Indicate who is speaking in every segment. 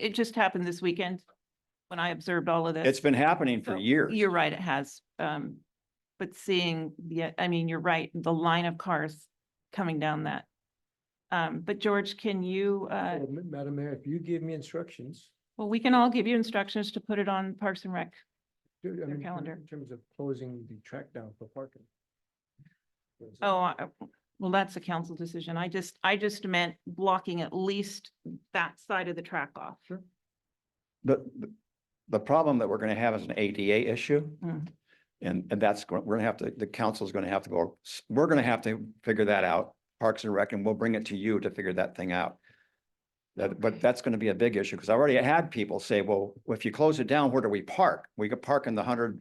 Speaker 1: it just happened this weekend when I observed all of this.
Speaker 2: It's been happening for
Speaker 1: So,
Speaker 2: years.
Speaker 1: You're right, it has. Um, but seeing, yeah, I mean, you're right, the line of cars coming down that. Um, but George, can you, uh,
Speaker 3: Well, Ma- Madam Mayor, if you give me instructions.
Speaker 1: well, we can all give you instructions to put it on Parks and Rec.
Speaker 3: do- I mean, in-
Speaker 1: calendar.
Speaker 3: In terms of closing the track down for parking. There's a-
Speaker 1: Oh, I- well, that's a council decision. I just, I just meant blocking at least that side of the track off.
Speaker 2: The, the- the problem that we're gonna have is an ADA issue.
Speaker 1: Mm.
Speaker 2: And, and that's, gonna- we're gonna have to, the council's gonna have to go, s- we're gonna have to figure that out, Parks and Rec, and we'll bring it to you to figure that thing out. That, but
Speaker 1: Okay.
Speaker 2: that's gonna be a big issue, because I already had people say, well, if you close it down, where do we park? We could park in the hundred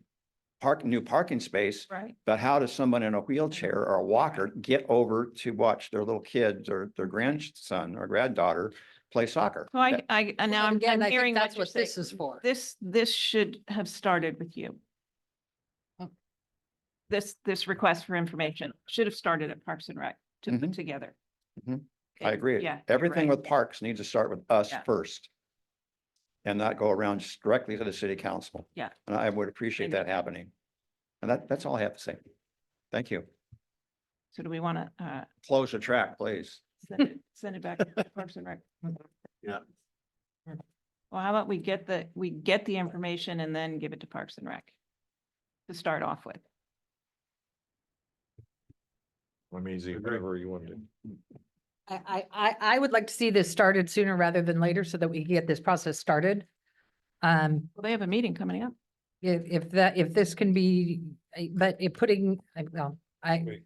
Speaker 2: park, new parking space,
Speaker 1: Right.
Speaker 2: but how does someone in a wheelchair or a walker get over to watch their little kids or their grandson or granddaughter play soccer?
Speaker 1: So I, I, and now
Speaker 4: Well,
Speaker 1: I'm,
Speaker 4: again,
Speaker 1: I'm
Speaker 4: I think
Speaker 1: hearing
Speaker 4: That's
Speaker 1: what you're
Speaker 4: what
Speaker 1: saying.
Speaker 4: this is for.
Speaker 1: This, this should have started with you.
Speaker 4: Oh.
Speaker 1: This, this request for information should have started at Parks and Rec to put
Speaker 2: Mhm.
Speaker 1: together.
Speaker 2: Mhm. I
Speaker 1: Okay,
Speaker 2: agree.
Speaker 1: Yeah. you're
Speaker 2: Everything
Speaker 1: right.
Speaker 2: with parks needs to start with us
Speaker 1: Yeah.
Speaker 2: first. And not go around just directly to the city council.
Speaker 1: Yeah.
Speaker 2: And I would appreciate
Speaker 1: And-
Speaker 2: that happening. And that, that's all I have to say. Thank you.
Speaker 1: So do we want to, uh,
Speaker 2: Close the track, please.
Speaker 1: send it, send it back to Parks and Rec?
Speaker 3: Yeah.
Speaker 1: Well, how about we get the, we get the information and then give it to Parks and Rec to start off with?
Speaker 5: I'm easy,
Speaker 3: Agree.
Speaker 5: whatever you want to. do.
Speaker 4: I, I, I, I would like to see this started sooner rather than later so that we can get this process started. Um,
Speaker 1: Well, they have a meeting coming up.
Speaker 4: if, if that, if this can be, I- but it putting, I- well, I,
Speaker 5: Wait.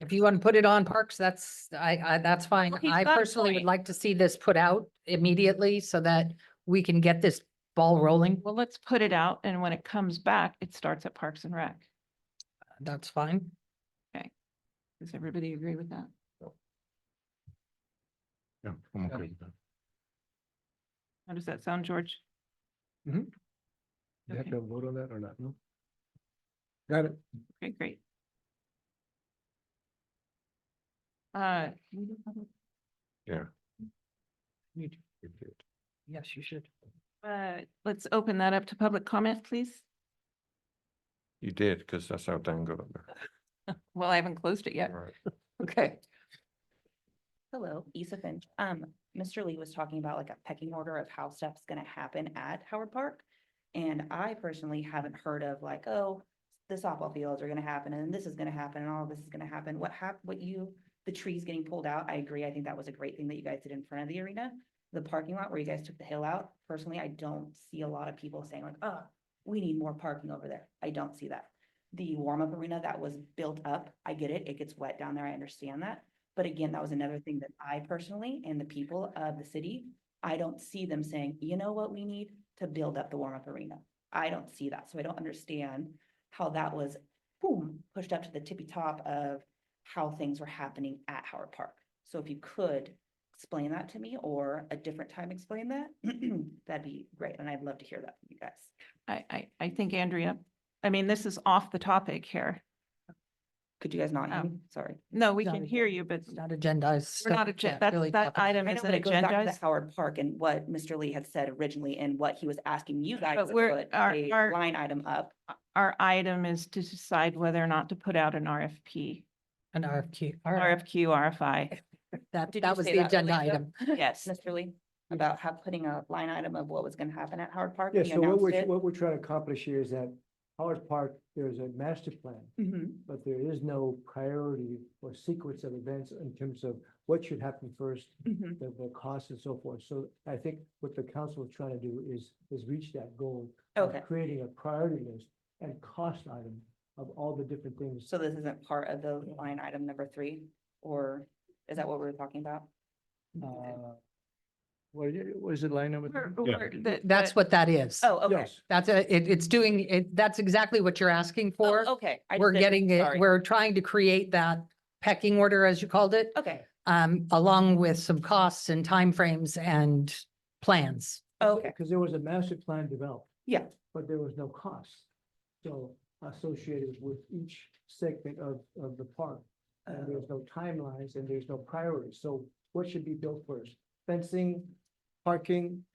Speaker 4: if you want to put it on parks, that's, I, I, that's fine.
Speaker 1: Well, he's
Speaker 4: I
Speaker 1: got a
Speaker 4: personally would
Speaker 1: point.
Speaker 4: like to see this put out immediately so that we can get this ball rolling.
Speaker 1: Well, let's put it out and when it comes back, it starts at Parks and Rec.
Speaker 4: That's fine.
Speaker 1: Does everybody agree with that?
Speaker 5: Yeah, I'm
Speaker 3: Yeah.
Speaker 5: okay with that.
Speaker 1: How does that sound, George?
Speaker 3: You have
Speaker 1: okay.
Speaker 3: to vote on that or not? No. Got it.
Speaker 1: Okay, great. Uh, can we do public-
Speaker 5: You do it.
Speaker 4: Yes, you should.
Speaker 1: uh, let's open that up to public comment, please.
Speaker 5: You did, because that's how Dan got up
Speaker 3: Uh,
Speaker 1: Well, I haven't closed it yet.
Speaker 5: there.
Speaker 1: Okay.
Speaker 6: Hello, Issa Finch. Um, Mr. Lee was talking about like a pecking order of how stuff's gonna happen at Howard Park. And I personally haven't heard of like, oh, the softball fields are gonna happen and this is gonna happen and all this is gonna happen. What hap, what you, the trees getting pulled out, I agree. I think that was a great thing that you guys did in front of the arena. The parking lot where you guys took the hill out, personally, I don't see a lot of people saying like, oh, we need more parking over there. I don't see that. The warm-up arena that was built up, I get it. It gets wet down there. I understand that. But again, that was another thing that I personally and the people of the city, I don't see them saying, you know what we need to build up the warm-up arena. I don't see that, so I don't understand how that was, boom, pushed up to the tippy top of how things were happening at Howard Park. So if you could explain that to me or a different time explain that, that'd be great, and I'd love to hear that from you guys.
Speaker 1: I, I, I think Andrea, I mean, this is off the topic here.
Speaker 6: Could you guys not hear
Speaker 1: Oh.
Speaker 6: me? Sorry.
Speaker 1: No, we
Speaker 4: Not
Speaker 1: can
Speaker 4: a-
Speaker 1: hear you, but
Speaker 4: It's not agendized.
Speaker 1: we're not, agen- that, that item
Speaker 6: I know,
Speaker 1: isn't
Speaker 6: but it goes back to
Speaker 1: agendized.
Speaker 6: the Howard Park and what Mr. Lee had said originally and what he was asking you guys
Speaker 1: But
Speaker 6: to
Speaker 1: we're-
Speaker 6: put
Speaker 1: our-
Speaker 6: a
Speaker 1: our-
Speaker 6: line item up.
Speaker 1: Our item is to decide whether or not to put out an RFP,
Speaker 4: An RFQ. All right.
Speaker 1: RFQ, RFI.
Speaker 4: That,
Speaker 6: Did you
Speaker 4: that was
Speaker 6: say
Speaker 4: the
Speaker 6: that
Speaker 4: agenda
Speaker 6: really well?
Speaker 4: item.
Speaker 1: Yes.
Speaker 6: Mr. Lee, about how putting a line item of what was gonna happen at Howard Park.
Speaker 3: Yeah,
Speaker 6: we
Speaker 3: so what
Speaker 6: announced
Speaker 3: we're,
Speaker 6: it.
Speaker 3: what we're trying to accomplish here is that Howard Park, there's a master plan,
Speaker 6: Mhm.
Speaker 3: but there is no priority or sequence of events in terms of what should happen first,
Speaker 6: Mhm.
Speaker 3: the, the costs and so forth. So I think what the council is trying to do is, is reach that goal. of
Speaker 6: Okay,
Speaker 3: Creating a priority list and cost item of all the different things.
Speaker 6: so this isn't part of the line item number three, or is that what we were talking about?
Speaker 3: uh, What, is it- what is it line number?
Speaker 1: We're-
Speaker 3: three?
Speaker 1: we're- the-
Speaker 4: That's
Speaker 1: the-
Speaker 4: what that is.
Speaker 6: Oh, okay.
Speaker 3: Yes,
Speaker 4: That's a, it, it's doing, it, that's exactly what you're asking for.
Speaker 6: Oh, Okay. I just
Speaker 4: We're
Speaker 6: didn't-
Speaker 4: getting
Speaker 6: sorry.
Speaker 4: it, we're trying to create that pecking order, as you called it,
Speaker 6: Okay,
Speaker 4: um, along with some costs and timeframes and plans.
Speaker 6: okay,
Speaker 3: because there was a master plan developed,
Speaker 6: yeah,
Speaker 3: but there was no cost. So associated with each segment of, of the park.
Speaker 6: Oh.
Speaker 4: Uh,
Speaker 3: And there's no timelines and there's no priorities. So what should be built first? Fencing, parking,